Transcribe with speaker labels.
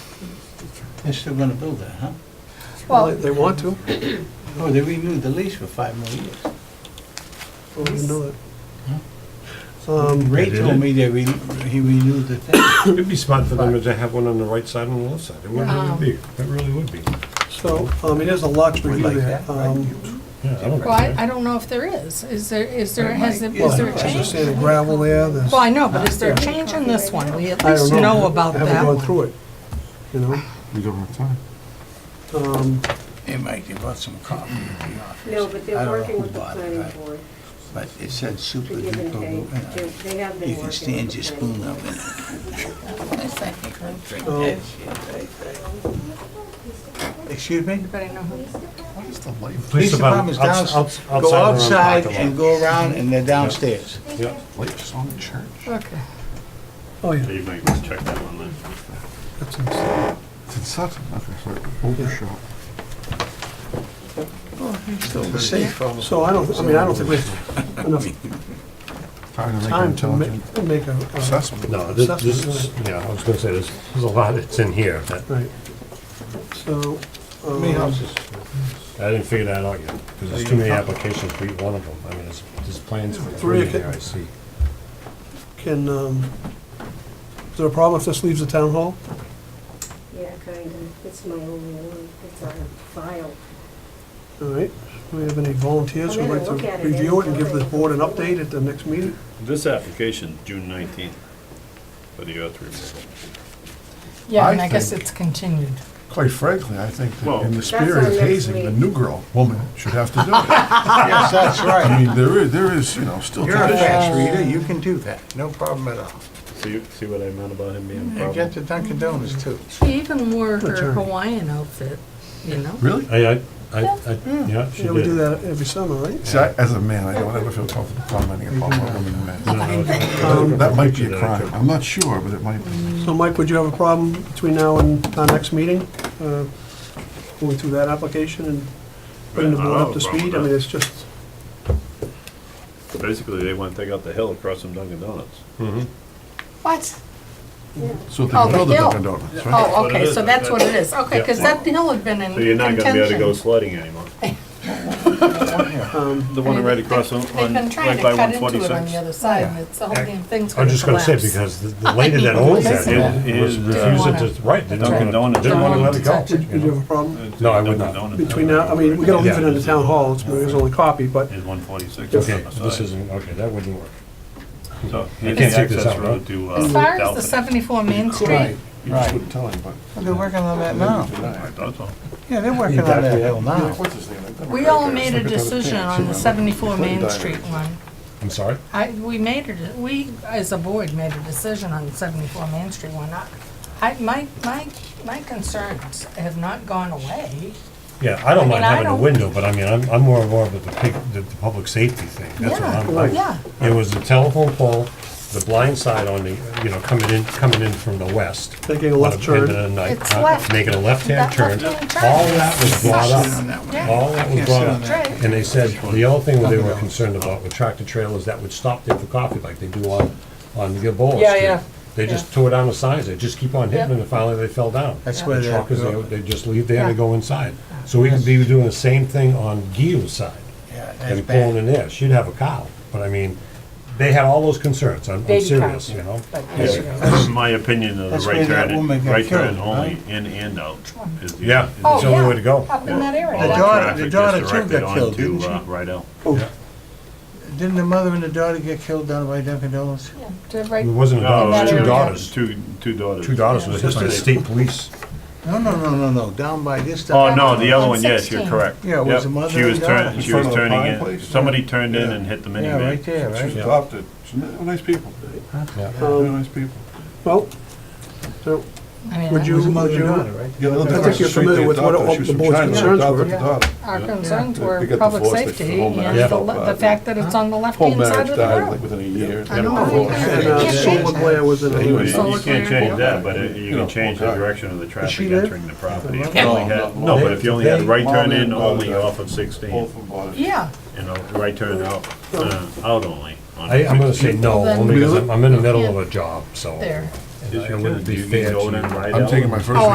Speaker 1: They're still gonna build that, huh?
Speaker 2: Well,
Speaker 3: Well, they want to.
Speaker 1: Oh, they renewed the lease for five more years.
Speaker 3: Well, we know that. Um,
Speaker 1: Ray told me they re, he renewed the thing.
Speaker 4: It'd be smart for them to have one on the right side and the left side. It would
Speaker 2: Yeah.
Speaker 4: really be, it really would be.
Speaker 3: So, um, it is a lot to
Speaker 1: Would
Speaker 3: review
Speaker 1: like
Speaker 3: that.
Speaker 1: that, right?
Speaker 3: Um,
Speaker 4: Yeah, I don't
Speaker 2: well, I,
Speaker 4: care.
Speaker 2: I don't know if there is. Is there, is there,
Speaker 1: There
Speaker 2: has,
Speaker 1: might-
Speaker 2: there-
Speaker 3: well,
Speaker 2: is there a
Speaker 3: As I
Speaker 2: change?
Speaker 3: say, the gravel there, there's.
Speaker 2: Well, I know, but is there a
Speaker 3: Yeah.
Speaker 2: change in this one? We at
Speaker 3: I
Speaker 2: least
Speaker 3: don't
Speaker 2: know about
Speaker 3: I
Speaker 2: that
Speaker 3: haven't gone
Speaker 2: one.
Speaker 3: through it, you know?
Speaker 5: We don't have time.
Speaker 3: Um,
Speaker 1: Hey, Mike, they brought some coffee at the office.
Speaker 6: No, but
Speaker 1: I
Speaker 6: they're
Speaker 1: don't know
Speaker 6: working
Speaker 1: who
Speaker 6: with the
Speaker 1: bought it,
Speaker 6: planning
Speaker 1: right?
Speaker 6: board,
Speaker 1: But it said super
Speaker 6: to give and
Speaker 1: duper,
Speaker 6: take.
Speaker 1: and I-
Speaker 6: They- They have been
Speaker 1: you
Speaker 6: working
Speaker 1: can
Speaker 6: with
Speaker 1: stand your
Speaker 6: the
Speaker 1: spoon
Speaker 6: planning
Speaker 1: up
Speaker 6: board.
Speaker 1: in it.
Speaker 3: so,
Speaker 1: Excuse me?
Speaker 2: But I know who-
Speaker 5: What is the light?
Speaker 1: Police department's
Speaker 4: outs-
Speaker 1: down,
Speaker 4: outs-
Speaker 1: go
Speaker 4: around the
Speaker 1: outside
Speaker 4: parking
Speaker 1: and
Speaker 4: lot.
Speaker 1: go around and they're downstairs.
Speaker 4: Yeah.
Speaker 5: Lights on the church.
Speaker 2: Okay.
Speaker 3: oh, yeah,
Speaker 7: You might want to check that one then.
Speaker 3: that's insane.
Speaker 5: It's in Sutton, okay, so overshot.
Speaker 1: Still safe.
Speaker 3: So I don't, I mean, I don't think we have enough
Speaker 5: Trying to make an
Speaker 3: time to
Speaker 5: intelligent
Speaker 3: ma- make a. a-
Speaker 5: assessment.
Speaker 4: No, this,
Speaker 3: Stuff.
Speaker 4: this is, yeah, I was gonna say, there's, there's a lot that's in here. that-
Speaker 3: Right. So,
Speaker 1: How many
Speaker 3: um,
Speaker 1: houses?
Speaker 4: I didn't figure that out yet, because there's too many applications for each one of them. I mean, there's, there's plans for
Speaker 3: Three,
Speaker 4: three here,
Speaker 3: okay.
Speaker 4: I see.
Speaker 3: can, um, is there a problem if this leaves the town hall?
Speaker 6: Yeah, kind of. It's my only one. It's on file.
Speaker 3: All right, do we have any volunteers who'd like
Speaker 6: Come in and look at
Speaker 3: to
Speaker 6: it.
Speaker 3: review it and give the board an update at the next meeting?
Speaker 7: This application, June nineteenth, for the earth removal.
Speaker 2: Yeah,
Speaker 5: I
Speaker 2: and I guess
Speaker 5: think-
Speaker 2: it's continued.
Speaker 5: Quite frankly, I think that
Speaker 7: Well-
Speaker 5: in the
Speaker 7: That's
Speaker 5: spirit
Speaker 6: our
Speaker 5: of
Speaker 6: next
Speaker 5: hazing, the
Speaker 6: week.
Speaker 5: new girl, woman, should have to do it.
Speaker 1: Yes, that's
Speaker 5: I
Speaker 1: right.
Speaker 5: mean, there is, there is, you know, still.
Speaker 1: You're a
Speaker 5: tradition.
Speaker 1: fast reader, you can do that, no problem at all.
Speaker 7: See, see what I meant about him
Speaker 2: Mm-hmm.
Speaker 7: being a
Speaker 1: And
Speaker 7: problem?
Speaker 1: get the Dunkin' Donuts too.
Speaker 2: She even wore her
Speaker 3: Return.
Speaker 2: Hawaiian outfit, you know?
Speaker 5: Really?
Speaker 4: I, I, I, I- yeah, she
Speaker 3: Yeah, we do
Speaker 4: did.
Speaker 3: that every summer, right?
Speaker 5: See, I- as a man, I don't ever feel comfortable commenting upon what
Speaker 4: No,
Speaker 5: women wear.
Speaker 4: I was- I was-
Speaker 3: Um,
Speaker 5: That might be a crime, I'm not sure, but it might be.
Speaker 3: So Mike, would you have a problem between now and our next meeting? uh, Going through that application and bringing the
Speaker 7: Yeah, I
Speaker 3: board
Speaker 7: don't
Speaker 3: up to
Speaker 7: have a problem
Speaker 3: speed? I mean,
Speaker 7: with that.
Speaker 3: it's just,
Speaker 7: Basically, they want to take out the hill across from Dunkin' Donuts.
Speaker 4: Mhm.
Speaker 2: What?
Speaker 5: So they
Speaker 2: Oh,
Speaker 5: can build
Speaker 2: the
Speaker 5: a
Speaker 2: hill.
Speaker 5: Dunkin' Donuts, right?
Speaker 2: Oh,
Speaker 7: what it
Speaker 2: okay,
Speaker 7: is.
Speaker 2: so that's what it is. Okay, because that hill had been in
Speaker 7: So you're not gonna be able to go
Speaker 2: contention.
Speaker 7: sledding anymore.
Speaker 3: um,
Speaker 7: The one right across on,
Speaker 2: They've
Speaker 7: on-
Speaker 2: been
Speaker 7: right
Speaker 2: trying to
Speaker 7: by
Speaker 2: cut
Speaker 7: one
Speaker 2: into it on the
Speaker 7: forty-six.
Speaker 2: other side, and it's, the whole damn thing's
Speaker 4: I was
Speaker 2: gonna
Speaker 4: just gonna
Speaker 2: collapse.
Speaker 4: say, because the- the lady that owns that
Speaker 7: It
Speaker 4: hill was
Speaker 7: is, uh,
Speaker 4: refusing to, right, they
Speaker 7: Dunkin'
Speaker 4: didn't wanna,
Speaker 7: Donuts.
Speaker 4: didn't wanna let it go.
Speaker 3: would
Speaker 4: you
Speaker 3: you
Speaker 4: know?
Speaker 3: have a problem
Speaker 4: No, I would not.
Speaker 3: between now, I mean, we're gonna leave it in the town hall, it's it's only copy, but
Speaker 7: Is one forty-six.
Speaker 4: Okay, this isn't, okay, that wouldn't work.
Speaker 7: So,
Speaker 4: You can't
Speaker 7: here's the
Speaker 4: take this
Speaker 7: access
Speaker 4: out,
Speaker 7: road
Speaker 4: right?
Speaker 7: to, uh.
Speaker 2: As far as the
Speaker 7: Dalton.
Speaker 2: seventy-four Main Street,
Speaker 1: Right,
Speaker 5: You just
Speaker 1: right.
Speaker 5: wouldn't tell anybody.
Speaker 1: They're working on that now.
Speaker 7: Right, that's all.
Speaker 1: Yeah, they're working on that hill now.
Speaker 5: What's his name?
Speaker 2: Oh. we all made a decision on the seventy-four Main Street one.
Speaker 4: I'm sorry?
Speaker 2: I, we made it, we, as a board, made a decision on 74 Main Street, why not? I, my, my, my concerns have not gone away.
Speaker 4: Yeah, I don't
Speaker 2: mean,
Speaker 4: mind
Speaker 2: I
Speaker 4: having a
Speaker 2: don't-
Speaker 4: window, but I mean, I'm, I'm more involved with the pig, the, the public safety thing, that's what I'm.
Speaker 3: Right.
Speaker 2: Yeah,
Speaker 4: I- It was the telephone pole, the blind side on the, you know, coming in, coming in from the west.
Speaker 3: taking a
Speaker 4: on a
Speaker 3: left
Speaker 4: pin in
Speaker 3: turn,
Speaker 4: the night,
Speaker 2: It's
Speaker 4: uh,
Speaker 2: left.
Speaker 4: Making a left-hand
Speaker 2: That
Speaker 4: turn,
Speaker 2: left-hand turn.
Speaker 4: all that was brought
Speaker 1: Sit on
Speaker 4: up,
Speaker 1: that one.
Speaker 2: yeah.
Speaker 4: all that was
Speaker 1: Can't
Speaker 4: brought
Speaker 1: sit on
Speaker 4: up.
Speaker 1: that.
Speaker 2: Right.
Speaker 4: And they said, the other thing they were concerned about with tractor trailers that would stop there for coffee like they do on, on Gilboa Street.
Speaker 2: Yeah, yeah.
Speaker 4: They just tore down the signs, they just keep on hitting them and finally they fell down.
Speaker 1: That's
Speaker 4: The
Speaker 1: where they're-
Speaker 4: Truckers, they, they just leave there,
Speaker 2: Yeah.
Speaker 4: they go inside. So we could be doing the same thing on Gil's side
Speaker 1: Yeah, that's
Speaker 4: and pulling
Speaker 1: bad.
Speaker 4: in there, she'd have a cow, but I mean, they had all those concerns, I'm, I'm
Speaker 2: Baby cow.
Speaker 4: serious, you know?
Speaker 2: but
Speaker 7: Yeah, that's My opinion of the
Speaker 1: That's where
Speaker 7: right
Speaker 1: that
Speaker 7: turn,
Speaker 1: woman
Speaker 7: in-
Speaker 1: got
Speaker 7: right turn
Speaker 1: killed,
Speaker 7: only, in and out. is the-
Speaker 4: Yeah,
Speaker 7: is the
Speaker 2: Oh,
Speaker 4: it's the only way to go.
Speaker 2: yeah, up in that area.
Speaker 1: The
Speaker 7: All
Speaker 2: yeah.
Speaker 1: daughter-
Speaker 7: traffic just
Speaker 1: daughter too
Speaker 7: directed
Speaker 1: got killed,
Speaker 7: onto,
Speaker 1: didn't she?
Speaker 7: uh, Rydell.
Speaker 1: Didn't the mother and the daughter get killed down by Dunkin' Donuts?
Speaker 2: Yeah, to
Speaker 4: It
Speaker 2: right-
Speaker 4: wasn't a
Speaker 7: No,
Speaker 4: daughter, it was
Speaker 2: that
Speaker 4: two
Speaker 2: area.
Speaker 4: daughters,
Speaker 7: Two, two daughters.
Speaker 4: two daughters was hit by the state police.
Speaker 1: No, no, no, no, no, down by this.
Speaker 7: Oh,
Speaker 1: Dunkin'
Speaker 7: no, the other
Speaker 2: On
Speaker 7: one, yes, you're
Speaker 2: 16.
Speaker 7: correct.
Speaker 1: Yeah, it was
Speaker 7: Yep.
Speaker 1: the mother
Speaker 7: She was
Speaker 1: and
Speaker 7: turn-
Speaker 1: daughter.
Speaker 7: She was
Speaker 5: In front of the
Speaker 7: turning
Speaker 5: pie
Speaker 7: in,
Speaker 5: place?
Speaker 7: somebody turned in
Speaker 5: Yeah.
Speaker 7: and hit the
Speaker 1: Yeah, right
Speaker 7: minivan.
Speaker 1: there,
Speaker 5: She was
Speaker 1: right?
Speaker 5: adopted, She's n- nice people,
Speaker 4: Yeah.
Speaker 5: really nice people.
Speaker 3: well, so,
Speaker 2: I mean,
Speaker 3: would
Speaker 1: It was
Speaker 3: you,
Speaker 1: mother
Speaker 3: would
Speaker 1: and
Speaker 3: you,
Speaker 1: daughter, right?
Speaker 5: Yeah, they lived
Speaker 3: I think
Speaker 5: across the
Speaker 3: you're
Speaker 5: street,
Speaker 3: familiar
Speaker 5: they
Speaker 3: with what
Speaker 5: adopted-
Speaker 3: all
Speaker 5: she was
Speaker 3: the
Speaker 5: from
Speaker 3: board's
Speaker 5: China,
Speaker 3: concerns
Speaker 5: adopted
Speaker 3: were.
Speaker 5: the daughter.
Speaker 2: Our concerns
Speaker 5: They-
Speaker 2: were
Speaker 5: they get
Speaker 2: public
Speaker 5: divorced, they-
Speaker 2: safety
Speaker 5: the whole
Speaker 2: and
Speaker 5: marriage
Speaker 2: the,
Speaker 5: fell
Speaker 2: le- the
Speaker 5: apart.
Speaker 2: fact that it's on the
Speaker 5: Whole
Speaker 2: left-hand side
Speaker 5: marriage
Speaker 2: of
Speaker 5: died
Speaker 2: the
Speaker 5: like
Speaker 2: road.
Speaker 5: within a year.
Speaker 2: I know.
Speaker 3: and uh, solar glare was in
Speaker 7: You
Speaker 3: it.
Speaker 7: you can't change that, but it-
Speaker 5: You
Speaker 7: you
Speaker 5: know,
Speaker 7: can change the
Speaker 5: okay.
Speaker 7: direction of the
Speaker 3: she
Speaker 7: traffic
Speaker 3: there?
Speaker 7: entering the property. If you
Speaker 5: No,
Speaker 7: only had-
Speaker 5: not
Speaker 7: No, but if you only had
Speaker 4: They-
Speaker 7: right turn
Speaker 5: Mom
Speaker 7: in
Speaker 5: and
Speaker 7: only
Speaker 5: daughter.
Speaker 7: off of sixteen,
Speaker 5: Both were bought.
Speaker 2: Yeah,
Speaker 7: you know, right turn out, uh, out only. on
Speaker 4: I, I'm gonna say
Speaker 7: 16.
Speaker 4: no,
Speaker 2: Then-
Speaker 4: only because I'm, I'm in the middle
Speaker 2: Yeah.
Speaker 4: of a job, so.
Speaker 2: There.
Speaker 4: and
Speaker 7: Is
Speaker 4: I-
Speaker 7: your-
Speaker 4: It wouldn't be
Speaker 7: you
Speaker 4: fair
Speaker 7: go in and
Speaker 4: to.
Speaker 7: ride
Speaker 5: I'm
Speaker 7: out?
Speaker 5: taking my first.
Speaker 2: Oh,